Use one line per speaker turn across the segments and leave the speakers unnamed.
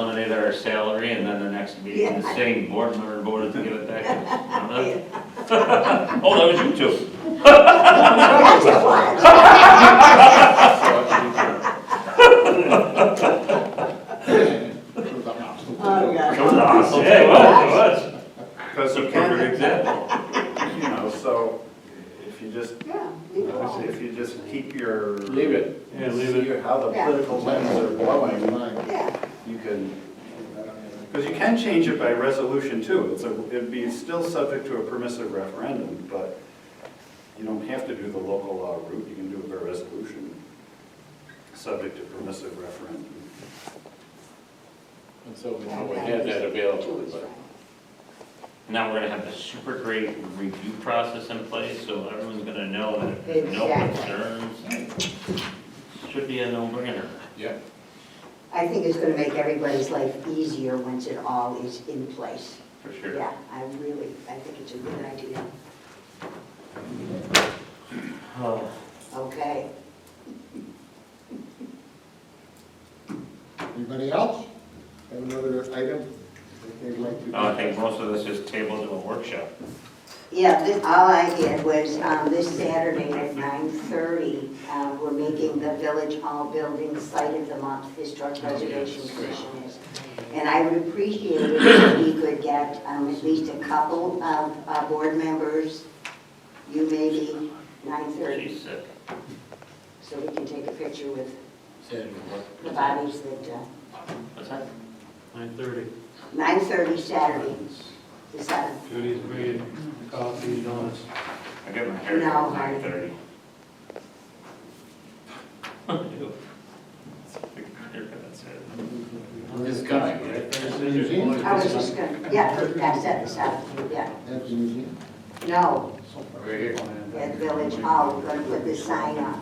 our salary, and then the next meeting, the same board member voted to give it back. to us. Oh, that was you two.
That's it was. Oh,
It was
God.
awesome, yeah, it was, it was. That's a perfect example.
You know, so if you just,
Yeah, you know.
if you just keep your.
Leave it.
Yeah, leave it.
See how the
Yeah.
political winds are blowing,
Yeah,
you can, because you can change it by resolution too. It's a, it'd be still subject to a permissive referendum, but you don't have to do the local law route. You can do it by resolution, subject to permissive referendum.
And so we know we had that available, but
Now we're gonna have the super great review process in place, so everyone's gonna know that if there's no concerns. Should be a no-brainer.
yeah,
I think it's gonna make everybody's life easier once it all is in place.
For sure.
Yeah, I really, I think it's a good idea.
Oh,
Okay.
Anybody else? Have another item that they'd like to?
Oh, I think most of this is tabled in a workshop.
Yeah, this, all I did was, um, this Saturday at nine thirty, uh, we're making the Village Hall Building Site of the Month, Historic Preservation Commission is. And I would appreciate it if we could get, um, at least a couple of, uh, board members, you maybe, nine thirty,
She's sick.
so we can take a picture with
said what?
the bodies that, uh,
What's that?
Nine thirty.
nine thirty Saturday, the seventh.
Judy's bringing coffee and donuts.
I get my hair
No,
done at nine thirty.
This guy, right?
Museum?
I was just gonna, yeah, that's at the seventh, yeah.
At the museum?
No,
Right here.
at Village Hall, we're gonna put this sign up,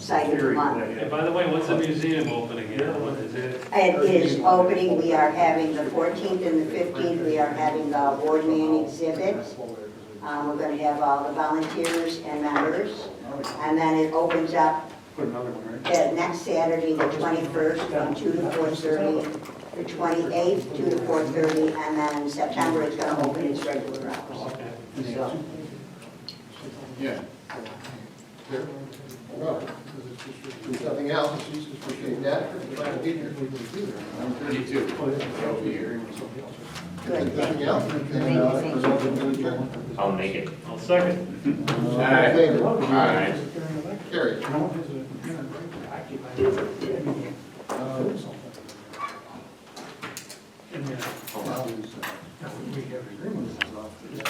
site of the month.
And by the way, when's the museum opening? Yeah, when is it?
It is opening, we are having the 14th and the 15th, we are having the award man exhibit. Um, We're gonna have all the volunteers and members, and then it opens up
Put another one,
uh, next Saturday, the 21st, from 2 to 4:30. The 28th, 2 to 4:30, and then in September, it's gonna open its regular hours.
Okay.
So,
Yeah.
Well, if Oh, nothing else, appreciate that. Glad to be here.
I'm thirty-two. I'll be here.
If
good.
nothing else, we can, uh, resolve it to adjourn.
I'll make it.
I'll second.
All
Aye.
in favor?
Aye.
Carry.
Hold on.
Uh,